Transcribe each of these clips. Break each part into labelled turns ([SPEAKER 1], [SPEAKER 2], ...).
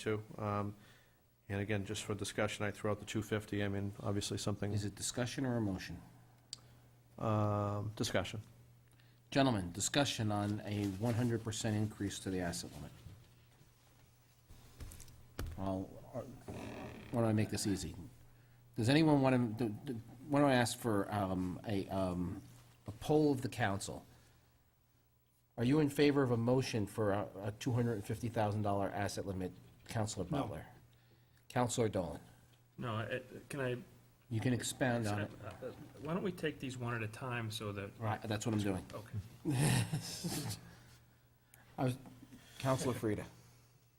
[SPEAKER 1] too. Um, And again, just for discussion, I threw out the 250, I mean, obviously something,
[SPEAKER 2] Is it discussion or a motion?
[SPEAKER 1] um, discussion.
[SPEAKER 2] Gentlemen, discussion on a 100% increase to the asset limit. Well, uh, why don't I make this easy? Does anyone want to, why don't I ask for um, a, um, a poll of the council? Are you in favor of a motion for a a $250,000 asset limit, Counselor Butler? Counselor Dolan,
[SPEAKER 3] No, it- can I, uh,
[SPEAKER 2] you can expound on it.
[SPEAKER 3] why don't we take these one at a time so that,
[SPEAKER 2] Right, that's what I'm doing.
[SPEAKER 3] okay.
[SPEAKER 2] Counselor Frida?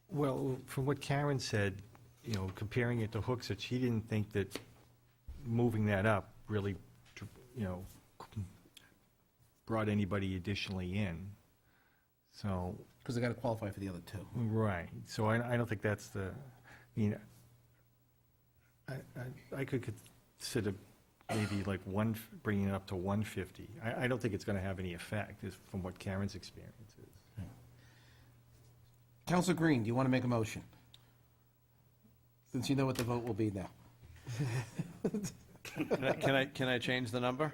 [SPEAKER 4] Well, from what Karen said, you know, comparing it to hooks, that she didn't think that moving that up really, you know, brought anybody additionally in. So,
[SPEAKER 2] Because I got to qualify for the other two.
[SPEAKER 4] right, so I, I don't think that's the, I mean, I, I- I could consider maybe like one, bringing it up to 150. I, I don't think it's going to have any effect, is from what Karen's experience is.
[SPEAKER 2] Counselor Green, do you want to make a motion? Since you know what the vote will be now.
[SPEAKER 1] Can I- Can I, can I change the number?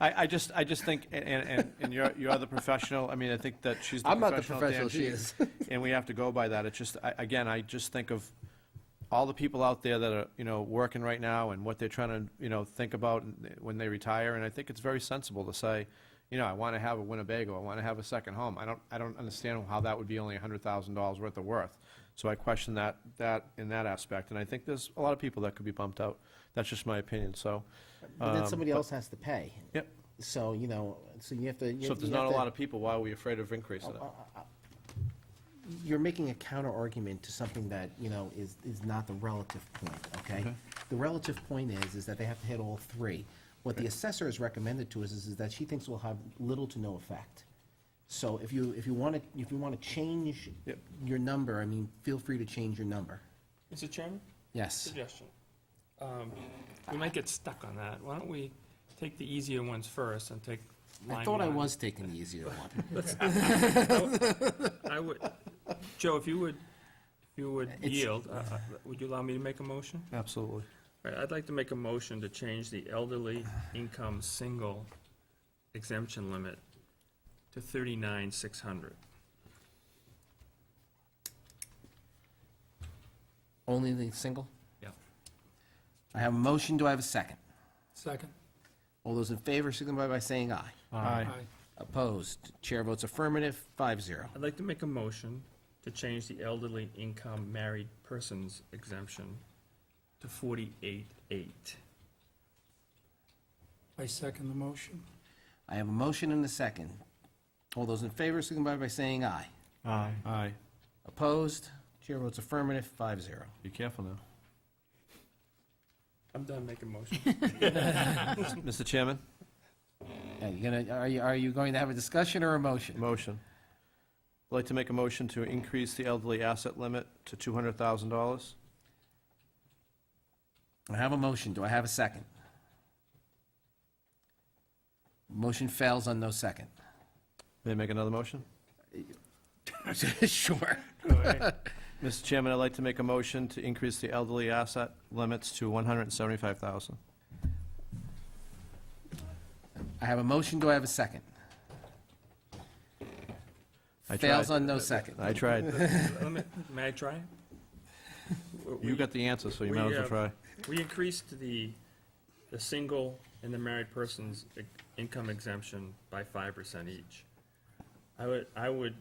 [SPEAKER 1] I, I just, I just think, and, and, and you're, you're the professional, I mean, I think that she's the
[SPEAKER 2] I'm
[SPEAKER 1] professional.
[SPEAKER 2] not the professional,
[SPEAKER 1] Dan,
[SPEAKER 2] she is.
[SPEAKER 1] And we have to go by that, it's just, I, again, I just think of all the people out there that are, you know, working right now and what they're trying to, you know, think about and- eh, when they retire, and I think it's very sensible to say, you know, I wanna have a Winnebago, I wanna have a second home, I don't, I don't understand how that would be only a hundred thousand dollars worth of worth. So I question that, that, in that aspect, and I think there's a lot of people that could be bumped out, that's just my opinion, so.
[SPEAKER 2] But then
[SPEAKER 1] um,
[SPEAKER 2] somebody else has to pay.
[SPEAKER 1] Yep.
[SPEAKER 2] So, you know, so you have to. you-
[SPEAKER 1] So if there's
[SPEAKER 2] you have
[SPEAKER 1] not a
[SPEAKER 2] to-
[SPEAKER 1] lot of people, why are we afraid of increasing it?
[SPEAKER 2] You're making a counter argument to something that, you know, is, is not the relative point, okay? The relative point is, is that they have to hit all three. What the assessor has recommended to us is, is that she thinks will have little to no effect. So if you, if you want to, if you want to change
[SPEAKER 1] Yep.
[SPEAKER 2] your number, I mean, feel free to change your number.
[SPEAKER 3] Mr. Chairman,
[SPEAKER 2] Yes.
[SPEAKER 3] suggestion. Um, We might get stuck on that. Why don't we take the easier ones first and take line
[SPEAKER 2] I thought I
[SPEAKER 3] one?
[SPEAKER 2] was taking the easier one.
[SPEAKER 3] I would, Joe, if you would, if you would
[SPEAKER 2] It's-
[SPEAKER 3] yield, uh, uh, would you allow me to make a motion?
[SPEAKER 1] Absolutely.
[SPEAKER 3] All right, I'd like to make a motion to change the elderly income single exemption limit to thirty-nine, six hundred.
[SPEAKER 2] Only the single?
[SPEAKER 3] Yeah.
[SPEAKER 2] I have a motion, do I have a second?
[SPEAKER 5] Second.
[SPEAKER 2] All those in favor signify by saying aye.
[SPEAKER 1] Aye.
[SPEAKER 2] Opposed, chair votes affirmative, five zero.
[SPEAKER 3] I'd like to make a motion to change the elderly income married persons exemption to forty-eight, eight.
[SPEAKER 5] I second the motion.
[SPEAKER 2] I have a motion and a second. All those in favor signify by saying aye.
[SPEAKER 4] Aye.
[SPEAKER 1] Aye.
[SPEAKER 2] Opposed, chair votes affirmative, five zero.
[SPEAKER 1] Be careful now.
[SPEAKER 3] I'm done making motions.
[SPEAKER 1] Mr. Chairman,
[SPEAKER 2] Are you gonna, are you, are you going to have a discussion or a motion?
[SPEAKER 1] motion. I'd like to make a motion to increase the elderly asset limit to $200,000.
[SPEAKER 2] I have a motion, do I have a second? Motion fails on no second.
[SPEAKER 1] May I make another motion?
[SPEAKER 2] Sure.
[SPEAKER 1] Mr. Chairman, I'd like to make a motion to increase the elderly asset limits to $175,000.
[SPEAKER 2] I have a motion, do I have a second?
[SPEAKER 1] I
[SPEAKER 2] Fails
[SPEAKER 1] tried.
[SPEAKER 2] on no second.
[SPEAKER 1] I tried.
[SPEAKER 3] Let me- May I try?
[SPEAKER 1] You got the answer, so you might as well try.
[SPEAKER 3] We increased the, the single and the married person's i- income exemption by five percent each. I would, I would,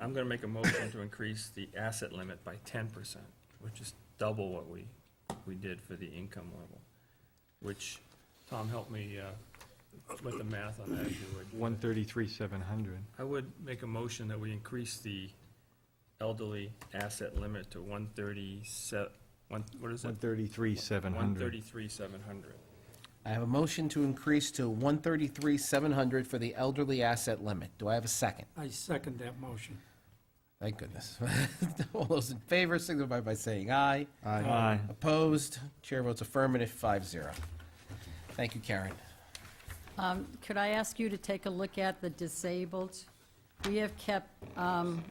[SPEAKER 3] I'm gonna make a motion to increase the asset limit by ten percent, which is double what we, we did for the income level. Which, Tom, help me, uh, with the math on that, if you would.
[SPEAKER 4] 133, 700.
[SPEAKER 3] I would make a motion that we increase the elderly asset limit to one thirty-seven, one, what is it?
[SPEAKER 4] 133, 700.
[SPEAKER 3] 133, 700.
[SPEAKER 2] I have a motion to increase to 133,700 for the elderly asset limit. Do I have a second?
[SPEAKER 5] I second that motion.
[SPEAKER 2] Thank goodness. All those in favor signify by saying aye.
[SPEAKER 4] Aye.
[SPEAKER 2] Opposed? Chair votes affirmative, 5-0. Thank you, Karen.
[SPEAKER 6] Um, Could I ask you to take a look at the disabled? We have kept um,